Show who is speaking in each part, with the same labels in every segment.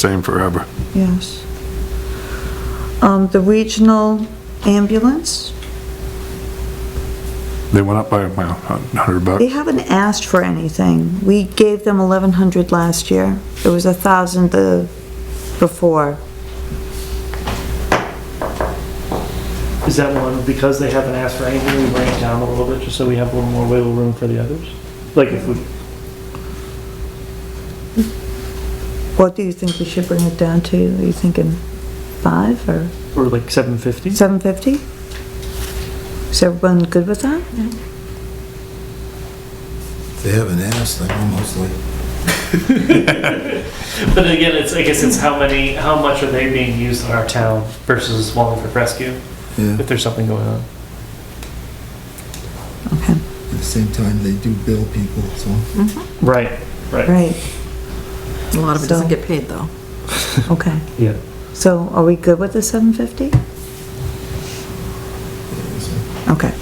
Speaker 1: same forever.
Speaker 2: Yes. Um, the regional ambulance,
Speaker 1: They went up by, well, a hundred bucks.
Speaker 2: they haven't asked for anything. We gave them eleven hundred last year. It was a thousand the, before.
Speaker 3: Is that one, because they haven't asked for anything, we bring it down a little bit, just so we have a little more wiggle room for the others? Like if we,
Speaker 2: What do you think we should bring it down to? Are you thinking five or
Speaker 3: or like seven fifty?
Speaker 2: seven fifty? Is everyone good with that?
Speaker 4: They haven't asked, they almost like,
Speaker 3: But again, it's, I guess it's how many, how much are they being used in our town versus Wallingford Rescue,
Speaker 4: yeah,
Speaker 3: if there's something going on?
Speaker 2: Okay,
Speaker 4: at the same time, they do bill people, so.
Speaker 3: Right, right.
Speaker 2: right,
Speaker 5: A lot of
Speaker 2: So-
Speaker 5: it doesn't get paid, though.
Speaker 2: okay.
Speaker 3: Yeah.
Speaker 2: So are we good with the seven fifty? Okay.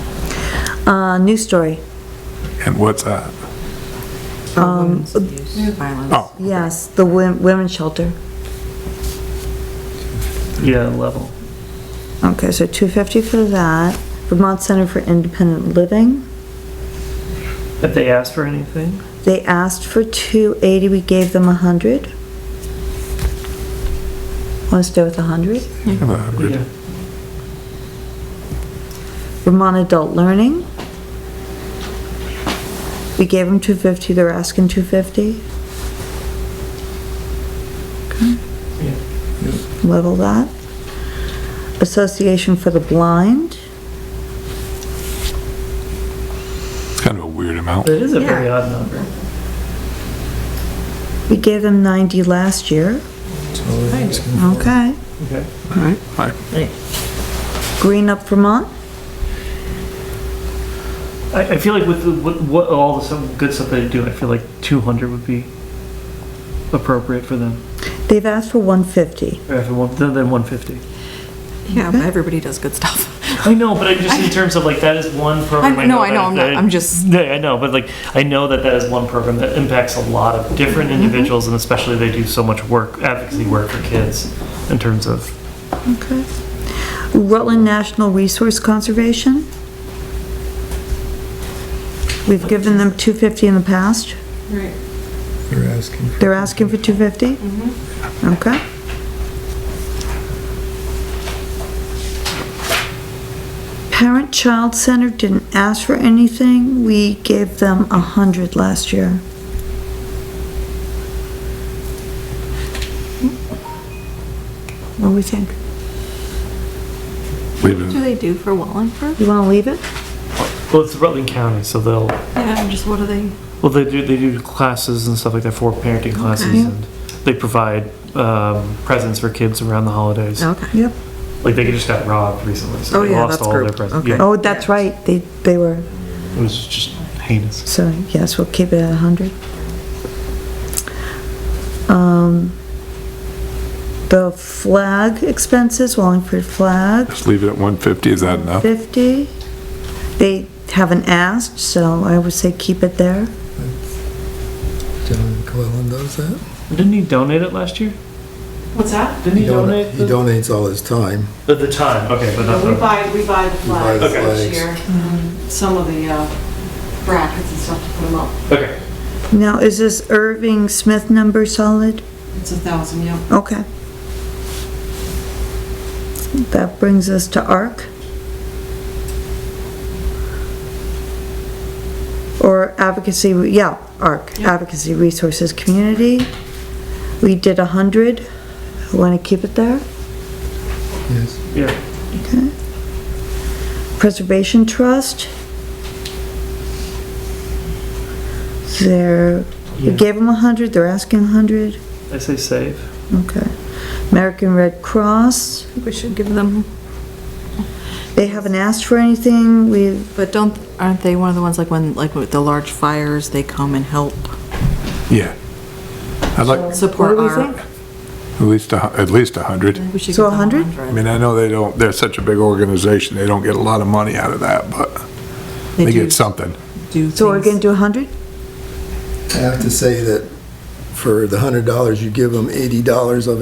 Speaker 2: Uh, news story.
Speaker 1: And what's that?
Speaker 2: Um,
Speaker 5: Women's abuse, violence.
Speaker 1: Oh,
Speaker 2: Yes, the wom- women's shelter.
Speaker 3: Yeah, level.
Speaker 2: Okay, so 250 for that. Vermont Center for Independent Living,
Speaker 3: If they asked for anything?
Speaker 2: they asked for 280, we gave them 100. Want to stay with
Speaker 1: give
Speaker 2: 100?
Speaker 1: it a hundred.
Speaker 3: Yeah.
Speaker 2: Vermont Adult Learning. We gave them 250, they're asking 250.
Speaker 3: Yeah.
Speaker 2: Okay. Level that. Association for the Blind,
Speaker 1: It's kind of a weird amount.
Speaker 3: But it is a very
Speaker 5: Yeah.
Speaker 3: odd number.
Speaker 2: we gave them 90 last year.
Speaker 4: That's all they're asking for.
Speaker 2: Okay.
Speaker 3: Okay.
Speaker 1: Right.
Speaker 2: Green Up Vermont,
Speaker 3: I, I feel like with, the- with what, all the some good stuff they do, I feel like two hundred would be appropriate for them,
Speaker 2: they've asked for 150.
Speaker 3: or if it won't, then, then one fifty.
Speaker 5: Yeah, but everybody does good stuff.
Speaker 3: I know, but I just in terms of like that is one program.
Speaker 5: I- no, I know,
Speaker 3: that-
Speaker 5: I'm not-
Speaker 3: that-
Speaker 5: I'm just-
Speaker 3: No, I know, but like I know that that is one program that impacts a lot of different
Speaker 5: Mm-hmm.
Speaker 3: individuals, and especially they do so much work, advocacy work for kids, in terms of
Speaker 2: Okay. Rutland National Resource Conservation. We've given them 250 in the past.
Speaker 5: Right.
Speaker 4: They're asking for.
Speaker 2: They're asking for 250? Okay. Parent Child Center didn't ask for anything. We gave them 100 last year. What do we think?
Speaker 1: Leave
Speaker 5: What do
Speaker 1: it.
Speaker 5: they do for Wallingford?
Speaker 2: You want to leave it?
Speaker 3: well, it's Rutland County, so they'll
Speaker 5: Yeah, I'm just, what do they?
Speaker 3: Well, they do, they do classes and stuff like that for parenting classes,
Speaker 2: Okay.
Speaker 3: and they provide um, presents for kids around the holidays.
Speaker 5: Okay.
Speaker 2: Yep.
Speaker 3: Like, they just got robbed recently,
Speaker 5: Oh,
Speaker 3: so they
Speaker 5: yeah,
Speaker 3: lost
Speaker 5: that's
Speaker 3: all their
Speaker 5: group.
Speaker 3: presents.
Speaker 5: Okay.
Speaker 3: Yeah,
Speaker 2: Oh, that's right, they, they were,
Speaker 3: It was just heinous.
Speaker 2: so yes, we'll keep it at 100. Um, The flag expenses, Wallingford flag,
Speaker 1: Just leave it at one fifty, is that enough?
Speaker 2: 50. They haven't asked, so I would say keep it there.
Speaker 4: John Cullen does that.
Speaker 3: Didn't he donate it last year?
Speaker 6: What's that?
Speaker 3: Didn't he donate the,
Speaker 4: He donates all his time.
Speaker 3: the, the time? Okay, but not
Speaker 6: No, We
Speaker 3: the.
Speaker 6: buy, we buy the
Speaker 4: buy
Speaker 6: flags
Speaker 4: the
Speaker 6: this
Speaker 4: flags.
Speaker 6: year, um, some of the uh, brackets and stuff to put them up.
Speaker 3: Okay.
Speaker 2: Now, is this Irving Smith number solid?
Speaker 6: It's a thousand, yeah.
Speaker 2: Okay. That brings us to ARC. Or advocacy, yeah, ARC,
Speaker 6: Yeah.
Speaker 2: Advocacy Resources Community. We did 100. Want to keep it there?
Speaker 4: Yes.
Speaker 3: Yeah.
Speaker 2: Preservation Trust. They're, we
Speaker 3: Yeah.
Speaker 2: gave them 100, they're asking 100.
Speaker 3: I say save.
Speaker 2: Okay. American Red Cross,
Speaker 5: I think we should give them,
Speaker 2: they haven't asked for anything. We've
Speaker 5: but don't, aren't they one of the ones, like, when, like, with the large fires, they come and help
Speaker 1: Yeah. I'd like
Speaker 2: What
Speaker 5: support
Speaker 2: do we
Speaker 5: our?
Speaker 2: think?
Speaker 1: at least, a hu- at least a hundred.
Speaker 5: We should
Speaker 2: So
Speaker 5: give them
Speaker 2: 100?
Speaker 5: 100.
Speaker 1: I mean, I know they don't, they're such a big organization, they don't get a lot of money out of that, but they
Speaker 5: do
Speaker 1: get something.
Speaker 5: do
Speaker 2: So we're
Speaker 5: things.
Speaker 2: gonna do 100?
Speaker 4: I have to say that for the hundred dollars you give them, eighty dollars of